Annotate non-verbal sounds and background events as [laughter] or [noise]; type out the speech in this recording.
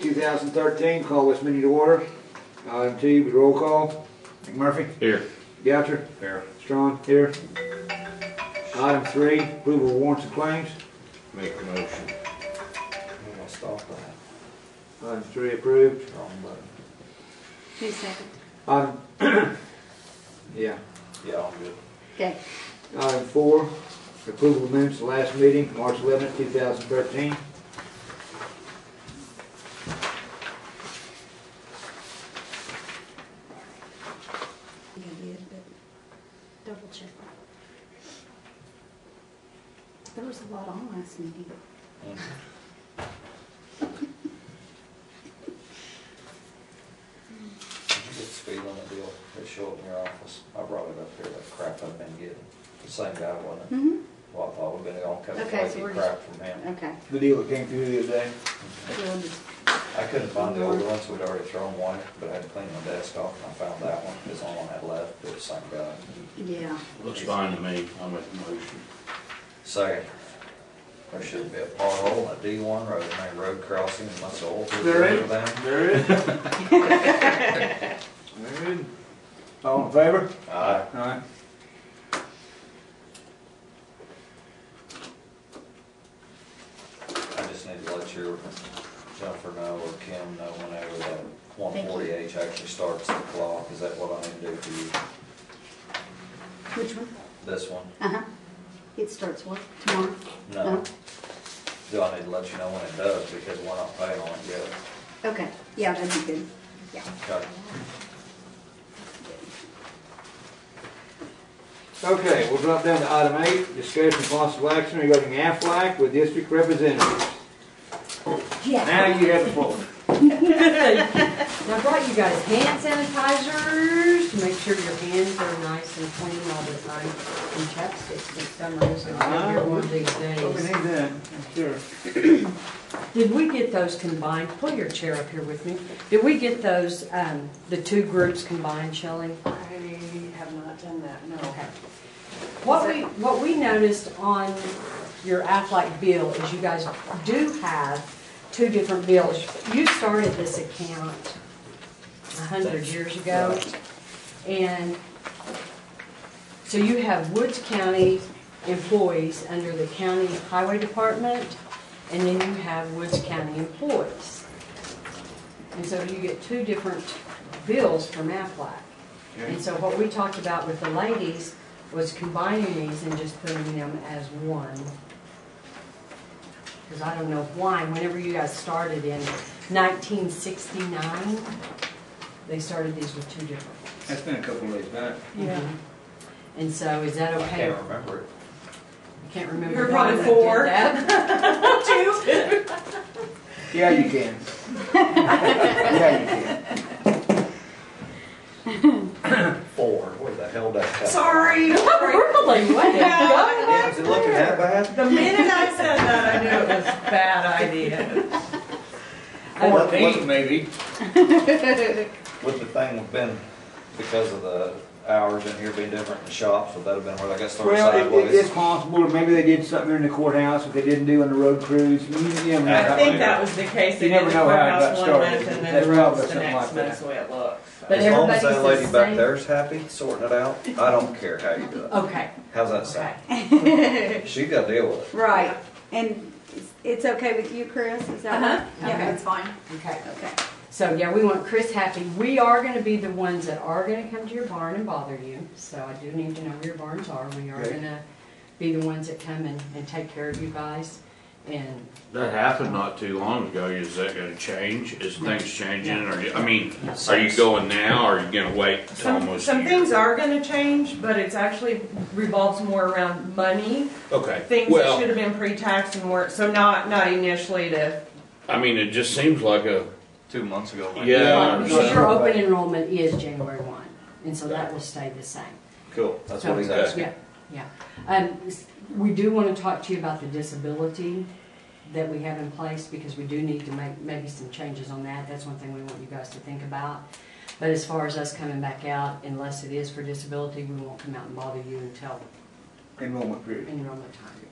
2013. Call West Meeting to order. Item T, with roll call. McMurphy? Here. Goucher? Here. Strong? Here. Item three, approval of warrants and claims. Make a motion. I'm gonna stop that. Item three approved. Wrong button. Who's second? Item, [clears throat] yeah. Yeah, I'm good. Okay. Item four, approval of minutes of last meeting, March 11th, 2013. You did, but double check. There was a lot on last meeting. Did you get the speed limit deal that showed up in your office? I brought it up here, that crap I've been getting. The same guy, wasn't it? Mm-hmm. Well, I thought we'd been all kind of Okay, so flaky we're crap from him. Okay. The deal that came through the other day, Everyone just- I couldn't find the old ones, we'd already thrown one, but I had to clean my desk off and I found that one, it's the only one I had left, but the same guy. Yeah. Looks fine to me, I'll make a motion. Second, there should be a pothole at D one road, main road crossing, and that's all. There is. [laughs] There it is. All in favor? Aye. Aye. I just need to let your Jennifer know or Kim know whenever that one Thank you. forty H actually starts the clock, is that what I need to do for you? Which one? This one? Uh-huh. It starts what? Tomorrow? No. Do I need to let you know when it does, because we're not paying on it yet? Okay. Yeah, that'd be good. Yeah. Okay. Okay, we'll drop down to item eight, discussion of possible action regarding Aflac with district representatives. Now Yes. you have the floor. And I brought you guys hand sanitizers to make sure your hands are nice and clean all the time. And chapsticks this summer, this is gonna be one of these Well, we need days. that, I'm sure. Did we get those combined? Pull your chair up here with me. Did we get those, um, the two groups combined, Shelley? I have not done that, no. Okay. What we, what we noticed on your Aflac bill is you guys do have two different bills. You started this account a hundred years ago. And so you have Woods County employees under the county highway department, and then you have Woods County employees. And so you get two different bills from Aflac. And so what we talked about with the ladies was combining these and just putting them as one. Because I don't know why, whenever you guys started in 1969, they started these with two different ones. Mm-hmm. That's been a couple of days back. Yeah. And so is that I okay? can't remember it. I Can't remember. You're why probably I did four. that. Yeah, you can. Yeah, you can. Four, where the hell did that come from? Sorry, Really? What the hell? Yeah, is it looking that bad? the minute I said that, I knew it was a bad idea. Fourteen, maybe. Would the thing have been because of the hours in here being different in shops, would that have been where they got started Well, it- it- it's sideways? possible, or maybe they did something in the courthouse that they didn't do on the road cruise. You- you never know. I think that was the case, they You never did the know how it got courthouse one started. month and That's then probably roads the something like next that. month, is the way it looks. But As long as everybody's that the lady back same. there's happy, sorting it out, I don't care how you do it. Okay, How's that sound? She got to deal with it. Right. And it's- it's okay with you, Chris? Is that Uh-huh. right? Yeah, that's fine. okay. Okay. So, yeah, we want Chris happy. We are gonna be the ones that are gonna come to your barn and bother you, so I do need to know where your barns are. We are Okay. gonna be the ones that come and, and take care of you guys. And That happened not too long ago, is that gonna change? Is things changing, or, I mean, are you going now, or are you gonna wait till Some, almost a some year? things are gonna change, but it's actually revolves more around money, Okay, things that should well, have been pre-taxed and weren't, so not, not initially to, I mean, it just seems like a, Two months ago. maybe. Yeah. So your open enrollment is January one, and so that will stay the same. Cool, that's what he's So, asking. Yeah, yeah. Um, s- we do wanna talk to you about the disability that we have in place, because we do need to make maybe some changes on that. That's one thing we want you guys to think about. But as far as us coming back out, unless it is for disability, we won't come out and bother you until Enrollment period. enrollment time.